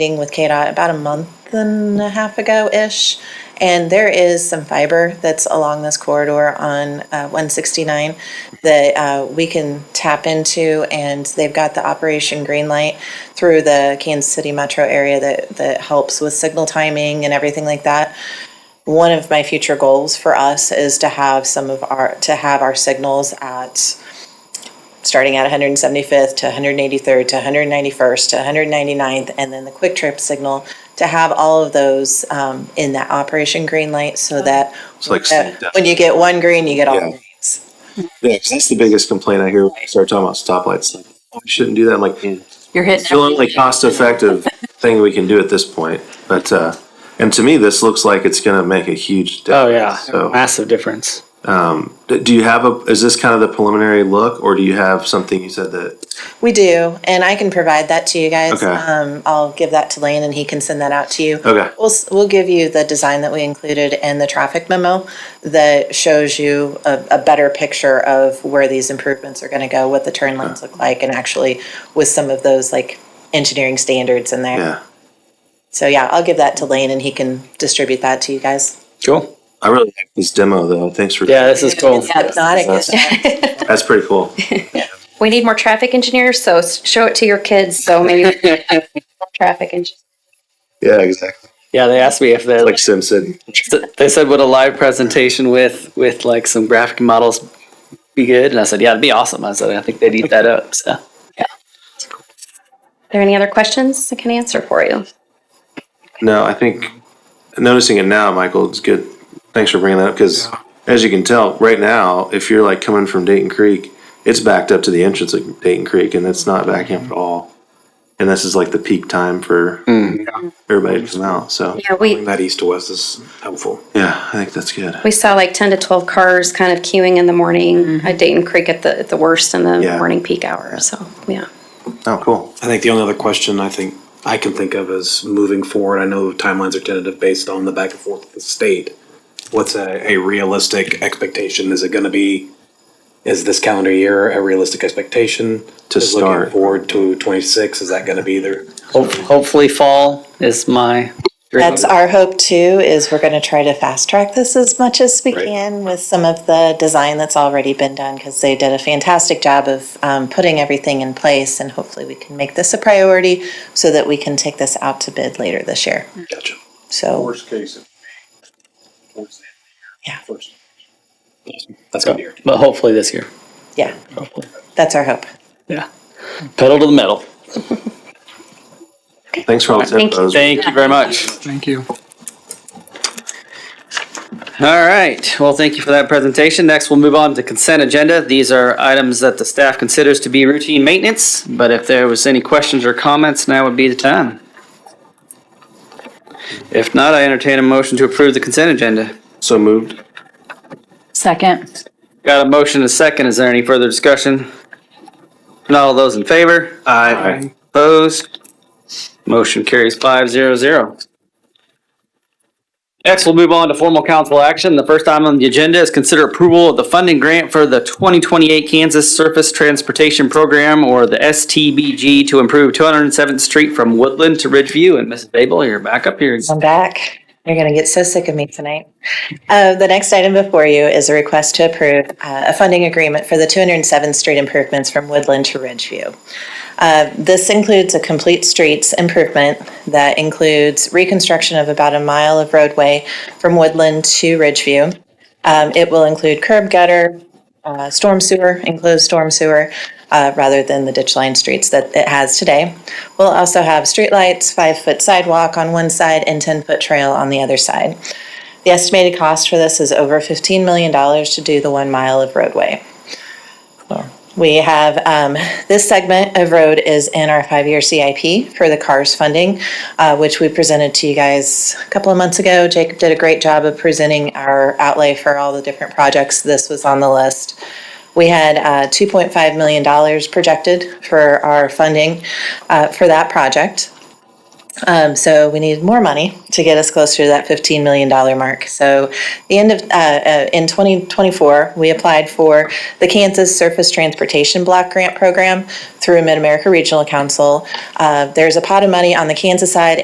meeting with KDOT about a month and a half ago-ish. And there is some fiber that's along this corridor on uh, 169 that uh, we can tap into. And they've got the Operation Greenlight through the Kansas City metro area that, that helps with signal timing and everything like that one of my future goals for us is to have some of our to have our signals at starting at 175th to 183rd to 191st to 199th and then the quick trip signal to have all of those um, in that operation green light so that like when, state you get one green you get all Yeah. greens Yeah, because that's the biggest complaint I hear when I start talking about stoplights. Like, oh, we shouldn't do that. I'm like, it's You're hitting. the only cost effective thing we can do at this point. But, uh, and to me, this looks like it's going to make a huge difference. Oh yeah, So, massive difference. d- do you have a, is this kind of the preliminary look or do you have something you said that, we do and i can provide that to you guys Okay. um, i'll give that to lane and he can send that out to you okay, We'll, s- we'll give you the design that we included and the traffic memo that shows you a, a better picture of where these improvements are gonna go, what the turn lanes look like, and actually with some of those like engineering standards in there. yeah. So yeah, I'll give that to Lane and he can distribute that to you guys. Cool. I really like this demo though. Thanks for, Yeah, this is cool. If not, it gets- that's pretty cool. We need more traffic engineers, so s- show it to your kids. So maybe we can have more traffic engineers. Yeah, exactly. Yeah, they asked me if they Like Sim City. they said would a live presentation with with like some graphic models be good, and I said yeah, it'd be awesome. I said I think they'd eat that up. So Are there any other questions I can answer for you? No, I think noticing it now, Michael, it's good. Thanks for bringing that up because, as you can tell, right now, if you're like coming from Dayton Creek, it's backed up to the entrance of Dayton Creek, and it's not backing up at all. And this is like the peak time for everybody to come out. So, Yeah, we That east to west is helpful. yeah, I think that's good. we saw like ten to twelve cars kind of queuing in the morning at Dayton Creek at the at the worst in the Yeah. morning peak hour. So yeah. Oh, cool. I think the only other question I think I can think of is moving forward. I know timelines are tentative based on the back and forth of the state. What's a, a realistic expectation? Is it going to be, is this calendar year a realistic expectation? To Is start. Looking forward to twenty-six, is that going to be there? ho- hopefully fall is my. dream. That's our hope too, is we're gonna try to fast track this as much as we Right. can with some of the design that's already been done, because they did a fantastic job of um, putting everything in place, and hopefully we can make this a priority so that we can take this out to bid later this year. Gotcha. So, Mm. Worst case. it would be towards the end of the year, Yeah. first. That's going to be your. but hopefully this year. yeah, Hopefully, that's our hope. yeah. Pedal to the metal. Thanks for all the Thank you. tips. Thank you very much. Thank you. All right, well, thank you for that presentation. Next, we'll move on to consent agenda. These are items that the staff considers to be routine maintenance, but if there was any questions or comments, now would be the time. If not, I entertain a motion to approve the consent agenda. So moved. Second. Got a motion and a second. Is there any further discussion? Not all those in favor? Aye. Opposed? Motion carries five zero zero. Next, we'll move on to formal council action. The first item on the agenda is consider approval of the funding grant for the twenty twenty-eight Kansas Surface Transportation Program, or the STBG, to improve two hundred and seventh Street from Woodland to Ridgeview. And Mrs. Babel, you're back up here. I'm back. You're going to get so sick of me tonight. Uh, the next item before you is a request to approve uh, a funding agreement for the 207th Street improvements from Woodland to Ridgeview. Uh, this includes a complete streets improvement that includes reconstruction of about a mile of roadway from Woodland to Ridgeview. Um, it will include curb gutter, uh, storm sewer, enclosed storm sewer, uh, rather than the ditch line streets that it has today. We'll also have streetlights, five-foot sidewalk on one side, and 10-foot trail on the other side. The estimated cost for this is over $15 million to do the one mile of roadway. We have, um, this segment of road is in our five-year CIP for the CARS funding, uh, which we presented to you guys a couple of months ago. Jacob did a great job of presenting our outlay for all the different projects. This was on the list. We had uh, $2.5 million projected for our funding uh, for that project. Um, so we needed more money to get us closer to that $15 million mark. So the end of, uh, uh, in 2024, we applied for the Kansas Surface Transportation Block Grant Program through Mid-America Regional Council. Uh, there's a pot of money on the Kansas side